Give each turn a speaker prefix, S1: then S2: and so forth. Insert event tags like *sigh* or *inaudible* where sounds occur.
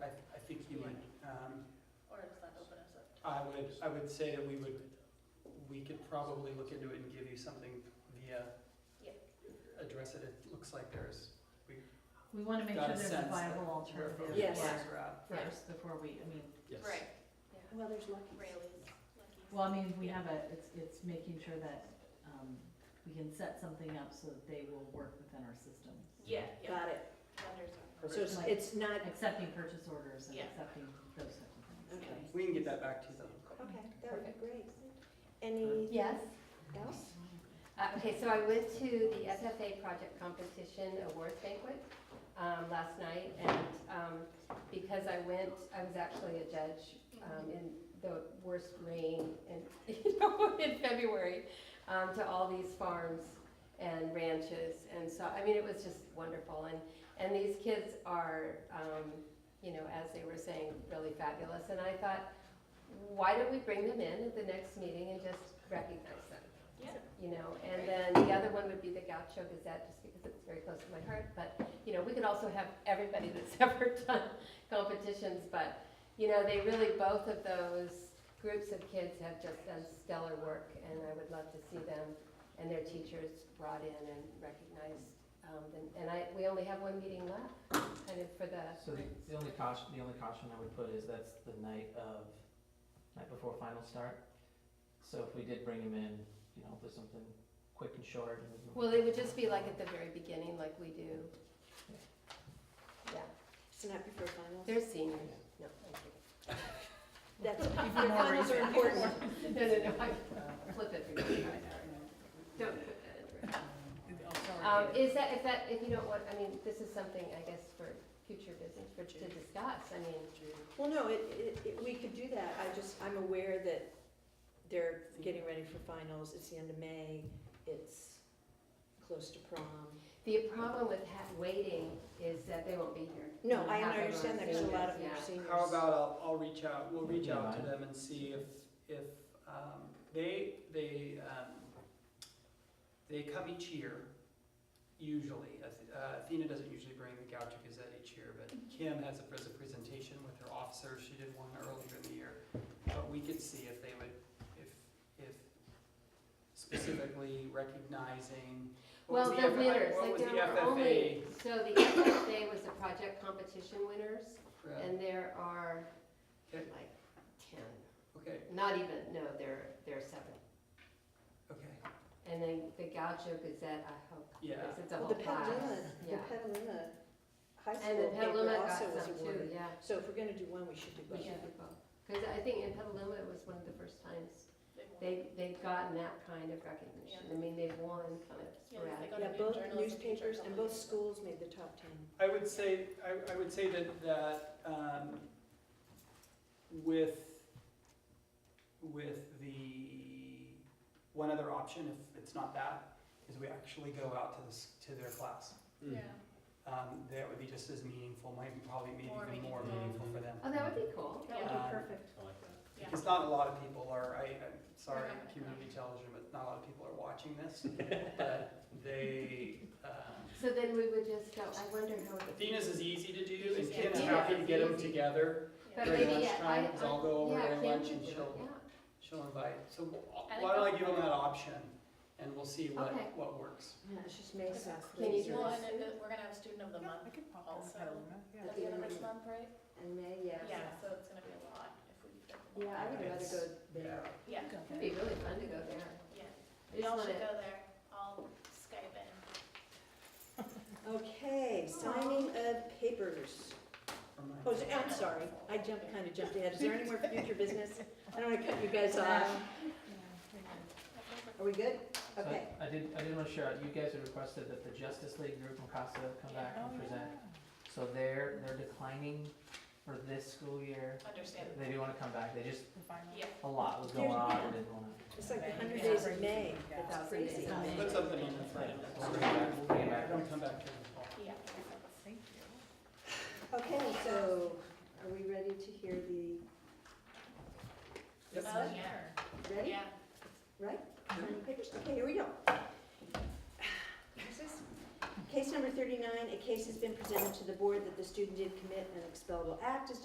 S1: would, um, I would say that we would, we could probably look into it and give you something via.
S2: Yeah.
S1: Address it, it looks like there's.
S3: We want to make
S1: Got
S3: sure
S1: a
S3: there's a
S1: sense
S3: viable
S1: that where
S3: alternative.
S2: Yes.
S3: first-
S2: Yeah.
S3: First, before we, I mean,
S1: Yes.
S2: Right,
S4: Well, there's Lucky's.
S2: Rayleigh's, Lucky's.
S3: well, I mean, we have a, it's, it's making sure that um, we can set something up so that they will work within our system.
S2: Yeah, yeah,
S4: Got it.
S2: vendors
S4: So
S1: Perfect.
S4: it's- it's not,
S3: Accepting purchase orders and
S2: Yeah.
S3: accepting those type of things.
S4: okay.
S1: We can get that back to you.
S4: Okay, that would be
S5: Perfect.
S4: great. Anything
S5: Yes.
S4: else?
S5: Uh, Okay, so I went to the FFA Project Competition Awards Banquet um, last night, and um, because I went, I was actually a judge
S2: Mm-hmm.
S5: um, in the worst rain in, *laughs* you know, in February, um, to all these farms and ranches, and so, I mean, it was just wonderful, and, and these kids are, um, you know, as they were saying, really fabulous, and I thought, why don't we bring them in at the next meeting and just recognize them?
S2: Yeah.
S5: You know, and then the other one would be the Gaucho Gazette, just because it's very close to my heart, but, you know, we could also have everybody that's *laughs* ever done competitions, but, you know, they really, both of those groups of kids have just done stellar work, and I would love to see them and their teachers brought in and recognized. um, and- And I, we only have one meeting left, kind of for the,
S6: So the, the only caution, the only caution I would put is that's the night of, night before final start. So if we did bring him in, you know, there's something quick and short and.
S5: well, it would just be like at the very beginning, like we do. Yeah,
S4: It's not before finals?
S5: they're seniors, no, thank you.
S4: That's,
S2: *laughs*
S4: finals
S3: *laughs*
S4: are important.
S5: No, no, no, I flip it for you. Don't put that in.
S1: *laughs*
S5: Um, is that, if that, if you don't want, I mean, this is something, I guess, for future business, for, to discuss, I mean.
S4: Well, no, it, it, it- we could do that. I just, I'm aware that they're getting ready for finals. It's the end of May. It's close to prom.
S5: The problem with ha- waiting is that they won't be here.
S4: No, I
S5: We'll have them on
S4: understand that because a lot of
S5: Zoom,
S4: them are
S5: yeah.
S4: seniors.
S1: How about I'll, I'll reach out, we'll reach out to
S6: Yeah.
S1: them and see if, if, um, they, they, um, they come each year, usually. Ath- uh, Athena doesn't usually bring the Gaucho Gazette each year, but Kim has a pres- a presentation with her officers, she did one earlier in the year. But we could see if they would, if, if specifically recognizing. what was
S5: Well, the
S1: F-
S5: winners,
S1: what
S5: like
S1: was the
S5: there were
S1: FFA
S5: only, so the FFA was the project competition winners,
S1: for-
S5: and there are
S1: Okay.
S5: like ten,
S1: Okay,
S5: not even, no, there, there are seven.
S1: okay.
S5: And then the Gaucho Gazette, I hope,
S1: Yeah.
S5: because it's a
S4: Well,
S5: whole
S4: The
S5: class.
S4: Petaluma, the
S5: Yeah.
S4: Petaluma High
S5: And the
S4: School paper
S5: Petaluma got
S4: also was
S5: some too,
S4: awarded.
S5: yeah.
S4: So if we're gonna do one, we should do
S5: We
S4: both.
S5: should do both. Because I think in Petaluma, it was one of the first times
S2: are.
S5: they, they've gotten that kind of recognition. I mean, they've won kind of
S2: Yeah, it's like
S5: sporadic.
S2: on a
S4: Yeah,
S2: new
S4: both
S2: journalism
S4: newspapers
S2: teacher
S4: and
S2: coming
S4: both
S2: in.
S4: schools made the top ten.
S1: I would say, I, I would say that, that, um, with, with the, one other option, if it's not that, is we actually go out to this, to their class.
S4: Mm.
S2: Yeah,
S1: Um, that would be just as meaningful, might probably be
S2: More
S1: even more meaningful
S2: meaningful.
S1: for them.
S5: Oh, that would be cool.
S2: That would
S1: be Um,
S4: perfect.
S2: yeah.
S1: Because not a lot of people are, I, I'm sorry,
S2: They're not-
S1: community television, but not a lot of people are watching this, but they, um,
S5: So then we would just go, I wonder how. it-
S1: Athena's is easy to do, and
S2: Yeah.
S1: Kim's
S2: Yeah,
S1: happy to
S5: it's
S1: get them
S5: easy.
S1: together
S5: But
S1: during
S5: maybe, yeah, I-
S1: lunchtime, because I'll go over
S5: yeah,
S1: during
S5: Kim
S1: lunch
S5: can
S1: and
S5: do it,
S1: she'll,
S5: yeah.
S1: she'll invite. So wh-
S2: I
S1: why don't I
S2: think
S1: give them
S2: that's-
S1: that option, and we'll see what,
S5: Okay.
S1: what works.
S4: Yeah, it's just Mesa.
S5: Can you do
S2: Well,
S4: Lasers.
S2: and then the- we're gonna have student of the month also. At the end of this month, right?
S4: And May, yeah.
S2: Yeah, so it's gonna be a lot if we. get them all.
S4: Yeah, I would rather
S1: It's-
S4: go there.
S1: yeah.
S2: Yeah,
S5: It'd be really fun to go there.
S2: yeah.
S5: I just
S2: Y'all should
S5: wanna-
S2: go there. I'll Skype in.
S4: Okay, signing of papers.
S1: for my-
S4: Oh, so- I'm sorry, I jumped, kind of jumped ahead. Is there any
S2: *laughs*
S4: more future business? I don't want to cut you guys off. Are we good?
S6: So I-
S4: Okay.
S6: I did, I did want to share, you guys had requested that the Justice League group from Casa come back
S5: Oh,
S6: and present. So they're, they're declining for this school year.
S2: Understandable.
S6: They do want to come back. They just,
S2: Yeah,
S6: a lot was going on and didn't want to.
S4: It's like the hundred days of May. That's
S5: Thousand days.
S4: crazy.
S1: Put something in the front.
S6: We'll bring it back. We'll bring it back.
S1: Don't come back to the fall.
S2: yeah.
S4: Okay, so are we ready to hear the,
S1: Yep.
S2: Oh, yeah,
S4: ready?
S2: yeah.
S4: Right? Signing of papers? Okay, here we go. Where's this? Case number thirty-nine, a case has been presented to the board that the student did commit an expellable act as